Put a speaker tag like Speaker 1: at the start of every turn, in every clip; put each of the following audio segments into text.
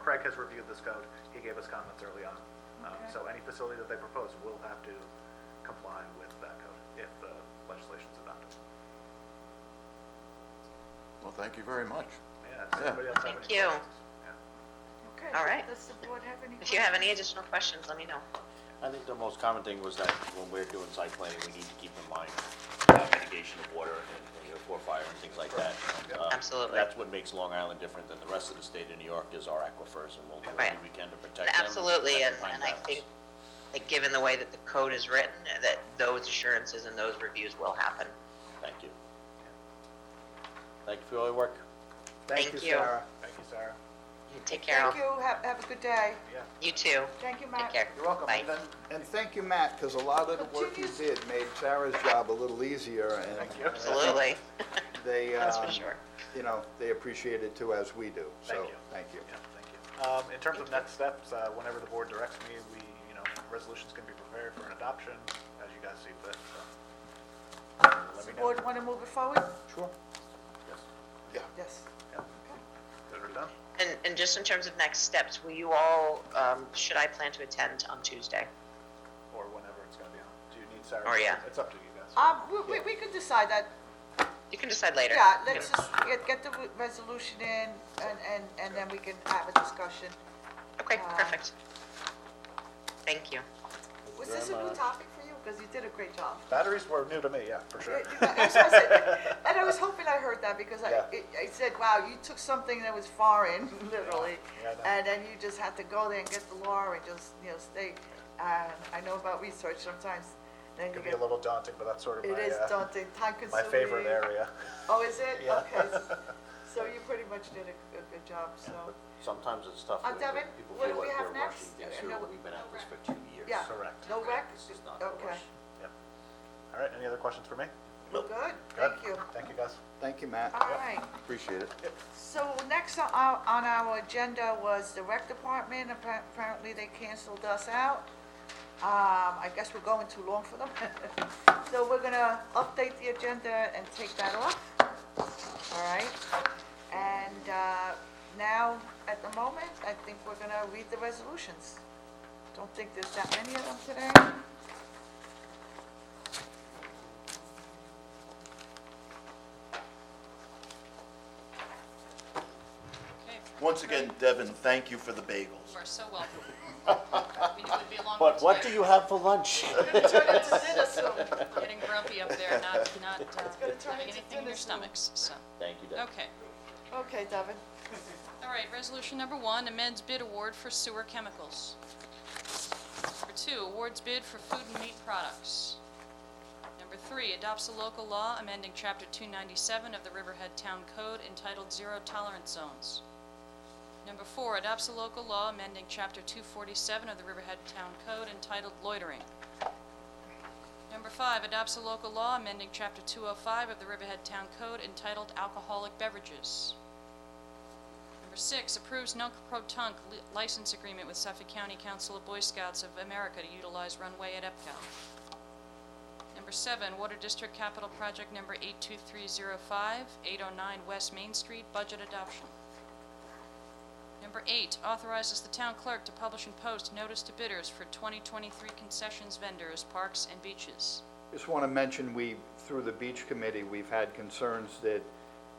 Speaker 1: Craig has reviewed this code, he gave us comments early on. Um,
Speaker 2: Okay.
Speaker 1: So any facility that they propose will have to comply with that code if the legislation's adopted.
Speaker 3: Well, thank you very much.
Speaker 1: Yeah, does anybody else have any
Speaker 4: Thank you.
Speaker 1: questions? Yeah.
Speaker 2: Okay,
Speaker 4: All right.
Speaker 2: does the board have any?
Speaker 4: If you have any
Speaker 2: questions?
Speaker 4: additional questions, let me know.
Speaker 5: I think the most common thing was that when we're doing site planning, we need to keep in mind uh, mitigation of water and, you know, for fire and things like that. Uh,
Speaker 4: Absolutely.
Speaker 5: That's what makes Long Island different than the rest of the state of New York is our aquifers, and we'll do
Speaker 4: Right.
Speaker 5: everything we can to protect them.
Speaker 4: Absolutely, and,
Speaker 5: protect the pine
Speaker 4: and I
Speaker 5: barrens.
Speaker 4: think, that given the way that the code is written, that those assurances and those reviews will happen.
Speaker 5: Thank you. Thank you for all your work.
Speaker 4: Thank you.
Speaker 1: Sarah. Thank you, Sarah.
Speaker 4: You Take care,
Speaker 2: Thank you, have, have a good day.
Speaker 1: Yeah,
Speaker 4: you too.
Speaker 2: Thank you,
Speaker 4: Take
Speaker 2: Matt.
Speaker 4: care.
Speaker 3: You're welcome.
Speaker 4: Bye.
Speaker 3: And then- And thank you, Matt, because a lot of the work you did made Sarah's job a little easier, and
Speaker 1: thank you.
Speaker 4: Absolutely,
Speaker 3: they,
Speaker 4: that's for
Speaker 3: um,
Speaker 4: sure.
Speaker 3: you know, they appreciate it too, as we do. So,
Speaker 1: Thank you.
Speaker 3: thank you.
Speaker 1: Yeah, thank you. Um, in terms of next steps, uh, whenever the board directs me, we, you know, resolutions can be prepared for an adoption, as you guys see fit, so. Let me know.
Speaker 2: Board want to move it forward?
Speaker 3: Sure.
Speaker 1: Yes.
Speaker 2: Yes.
Speaker 1: Yeah. Those are done.
Speaker 4: And, and just in terms of next steps, will you all, um, should I plan to attend on Tuesday?
Speaker 1: Or whenever it's gonna be on. Do you need Sarah?
Speaker 4: Or, yeah.
Speaker 1: It's up to you guys.
Speaker 2: Um, we, we, we could decide that,
Speaker 4: You can decide later.
Speaker 2: yeah, let's just get, get the re- resolution in and, and, and then we can have a discussion.
Speaker 4: Okay,
Speaker 2: uh,
Speaker 4: perfect. Thank you.
Speaker 2: Was this a new topic for you? Because you did a great job.
Speaker 1: Batteries were new to me, yeah, for
Speaker 2: Yeah,
Speaker 1: sure.
Speaker 2: you know, that's what I said. And I was hoping I heard that because I,
Speaker 1: Yeah.
Speaker 2: it- I said, wow, you took something that was foreign, literally.
Speaker 1: Yeah, I know.
Speaker 2: And then you just had to go there and get the law and just, you know, stay. And I know about research sometimes, then you
Speaker 1: Can be
Speaker 2: get,
Speaker 1: a little daunting, but that's sort of my,
Speaker 2: it is
Speaker 1: uh,
Speaker 2: daunting, time
Speaker 1: my
Speaker 2: consuming.
Speaker 1: favorite area.
Speaker 2: Oh, is it?
Speaker 1: Yeah.
Speaker 2: Okay. s- So you pretty much did a, a good job, so,
Speaker 5: Sometimes it's tough.
Speaker 2: Uh,
Speaker 5: when- when
Speaker 2: Devin,
Speaker 5: people
Speaker 2: what
Speaker 5: feel
Speaker 2: do we
Speaker 5: like
Speaker 2: have
Speaker 5: we're
Speaker 2: next?
Speaker 5: rushing things
Speaker 2: Uh,
Speaker 5: through,
Speaker 2: no-
Speaker 5: but We've been at this for two years.
Speaker 2: yeah.
Speaker 1: Correct.
Speaker 2: No rec?
Speaker 5: This is not the
Speaker 2: Okay.
Speaker 5: rush.
Speaker 1: Yep. All right, any other questions for me?
Speaker 2: Good,
Speaker 1: Good.
Speaker 2: thank you.
Speaker 1: Thank you, guys.
Speaker 3: Thank you, Matt.
Speaker 2: All right.
Speaker 3: Appreciate it.
Speaker 2: So next on our, on our agenda was the rec department, Appa- apparently they canceled us out. Um, I guess we're going too long for them. So we're gonna update the agenda and take that off, all right? And, uh, now, at the moment, I think we're gonna read the resolutions. Don't think there's that many of them today.
Speaker 6: Once again, Devin, thank you for the bagels.
Speaker 7: You are so welcome. We knew it would be a long
Speaker 5: But what do
Speaker 7: night.
Speaker 5: you have for lunch?
Speaker 2: Turn into dinner soon.
Speaker 7: Getting grumpy up there, not, not
Speaker 2: gonna turn
Speaker 7: uh, having
Speaker 2: into
Speaker 7: anything in
Speaker 2: dinner soon.
Speaker 7: your stomachs, so,
Speaker 5: Thank you, Devin.
Speaker 7: okay.
Speaker 2: Okay, David.
Speaker 7: All right, resolution number one, amends bid award for sewer chemicals. Number two, awards bid for food and meat products. Number three, adopts a local law amending Chapter 297 of the Riverhead Town Code entitled Zero Tolerance Zones. Number four, adopts a local law amending Chapter 247 of the Riverhead Town Code entitled Loitering. Number five, adopts a local law amending Chapter 205 of the Riverhead Town Code entitled Alcoholic Beverages. Number six, approves Nunc Pro Tunc li- license agreement with Suffolk County Council of Boy Scouts of America to utilize runway at Epcot. Number seven, Water District Capital Project Number 82305, 809 West Main Street, budget adoption. Number eight, authorizes the town clerk to publish and post notice to bidders for 2023 concessions vendors, parks, and beaches.
Speaker 3: Just want to mention, we, through the beach committee, we've had concerns that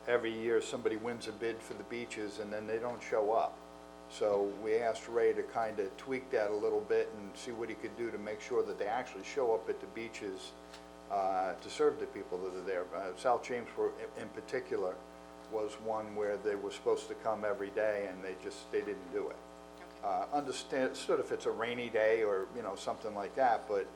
Speaker 3: every year somebody wins a bid for the beaches and then they don't show up. So we asked Ray to kind of tweak that a little bit and see what he could do to make sure that they actually show up at the beaches uh, to serve the people that are there. Uh, South James were, in- in particular, was one where they were supposed to come every day and they just, they didn't do it. Uh, Understand, sort of if it's a rainy day or, you know, something like that, but,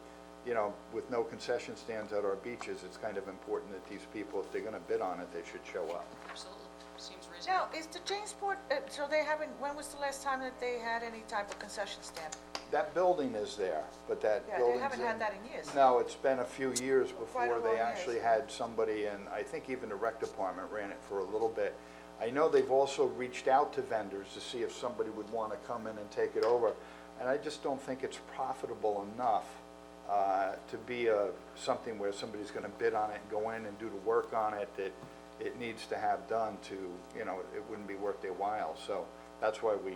Speaker 3: you know, with no concession stands at our beaches, it's kind of important that these people, if they're going to bid on it, they should show up.
Speaker 7: Absolutely, seems reasonable.
Speaker 2: Now, is the Jamesport, uh, so they haven't, when was the last time that they had any type of concession stand?
Speaker 3: That building is there, but that
Speaker 2: Yeah, they
Speaker 3: building's
Speaker 2: haven't had
Speaker 3: in-
Speaker 2: that in years.
Speaker 3: No, it's been a few years
Speaker 2: Quite a
Speaker 3: before they
Speaker 2: long
Speaker 3: actually
Speaker 2: years.
Speaker 3: had somebody, and I think even the rec department ran it for a little bit. I know they've also reached out to vendors to see if somebody would want to come in and take it over, and I just don't think it's profitable enough uh, to be a, something where somebody's going to bid on it and go in and do the work on it that it needs to have done to, you know, it wouldn't be worth their while, so that's why we